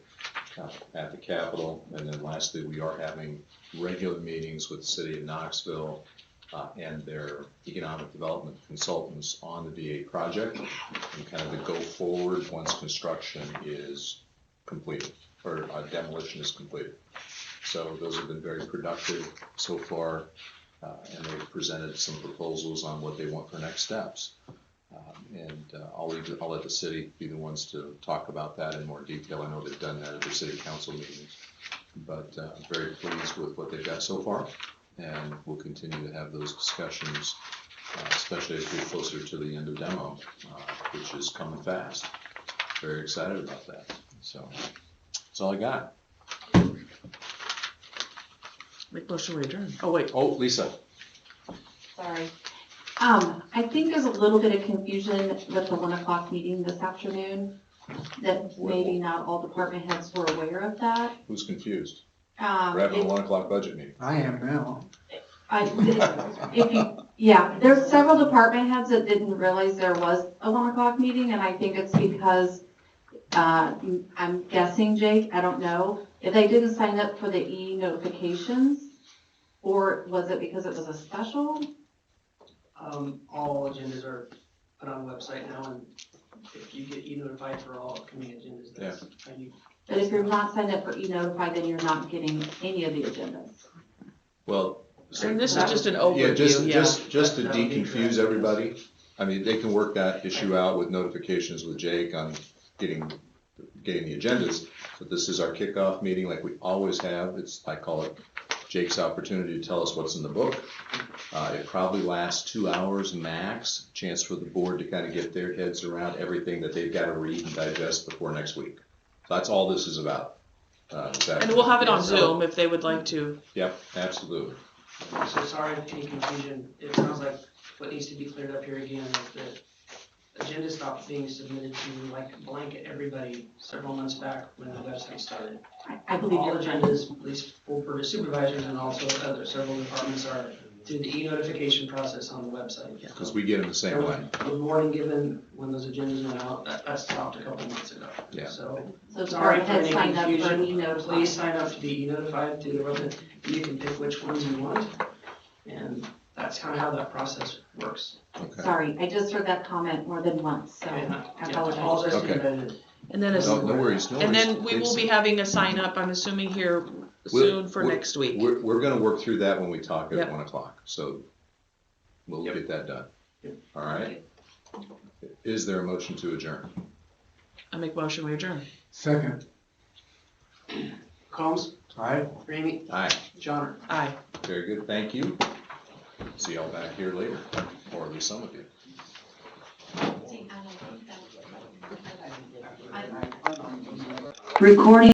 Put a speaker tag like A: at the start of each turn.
A: at the Capitol. And then lastly, we are having regular meetings with the city of Knoxville uh, and their economic development consultants on the VA project and kind of the go forward once construction is completed or uh, demolition is completed. So those have been very productive so far, uh, and they've presented some proposals on what they want for next steps. Um, And uh, I'll leave, I'll let the city be the ones to talk about that in more detail. I know they've done that at their city council meetings. But uh, I'm very pleased with what they've got so far, and we'll continue to have those discussions, uh, especially as we get closer to the end of demo, uh, which is coming fast. Very excited about that. So that's all I got.
B: Make motion we adjourn. Oh, wait.
A: Oh, Lisa.
C: Sorry. Um, I think there's a little bit of confusion with the one o'clock meeting this afternoon, that maybe not all department heads were aware of that.
A: Who's confused?
C: Um,
A: We're having a
C: it-
A: one o'clock budget meeting.
D: I am now.
C: I- if you- Yeah, there's several department heads that didn't realize there was a one o'clock meeting, and I think it's because, uh, I'm guessing, Jake, I don't know, if they didn't sign up for the e-notifications, or was it because it was a special?
E: Um, all agendas are put on the website now, and if you get e-notified for all upcoming agendas, that's how you.
C: But if you're not signed up for e-notify, then you're not getting any of the agendas.
A: Well. so-
B: And this is just an
A: Yeah, just,
B: overview, yeah.
A: just, just to
E: That would be
A: de-confuse
E: correct.
A: everybody, I mean, they can work that issue out with notifications with Jake on getting, getting the agendas. But this is our kickoff meeting like we always have, it's, I call it Jake's opportunity to tell us what's in the book. Uh, it probably lasts two hours max, chance for the board to kind of get their heads around everything that they've got to read and digest before next week. That's all this is about. uh, this
B: And we'll have it on
A: afternoon.
B: Zoom if they would like to.
A: Yep, absolutely.
E: So sorry if any confusion, it sounds like what needs to be cleared up here again is that agenda stopped being submitted to like blanket everybody several months back when the website started.
C: I- I believe
E: All
C: you're right.
E: agendas, at least for for supervisors and also other several departments are through the e-notification process on the website.
A: Because we get them the
E: There
A: same
E: was
A: way.
E: a warning given when those agendas went out, that, that stopped a couple months ago.
A: Yeah.
E: So,
C: So
E: sorry
C: department
E: for
C: heads
E: any
C: signed up for an E
E: confusion,
C: e-notify.
E: please sign up to be notified through the website, you can pick which ones you want. And that's kind of how that process works.
A: Okay.
C: Sorry, I just heard that comment more than once, so
E: And
C: I
E: that- yeah,
C: apologize.
E: apologize to
A: Okay.
E: the-
B: And then, it's-
A: No, no worries, no
B: and
A: worries.
B: then we will
A: It's-
B: be having a sign up, I'm assuming here
A: We'll-
B: soon for
A: we'll-
B: next week.
A: We're, we're gonna work through that when we talk at
B: Yep.
A: one o'clock, so we'll
E: Yep.
A: get that done.
E: Yep.
A: All right? Is there a motion to adjourn?
B: I make motion we adjourn.
D: Second,
E: Combs,
D: I
E: uh, Ramey,
A: Aye,
E: Johnner.
B: Aye.
A: very good, thank you. See y'all back here later, or at least some of you.
C: Recording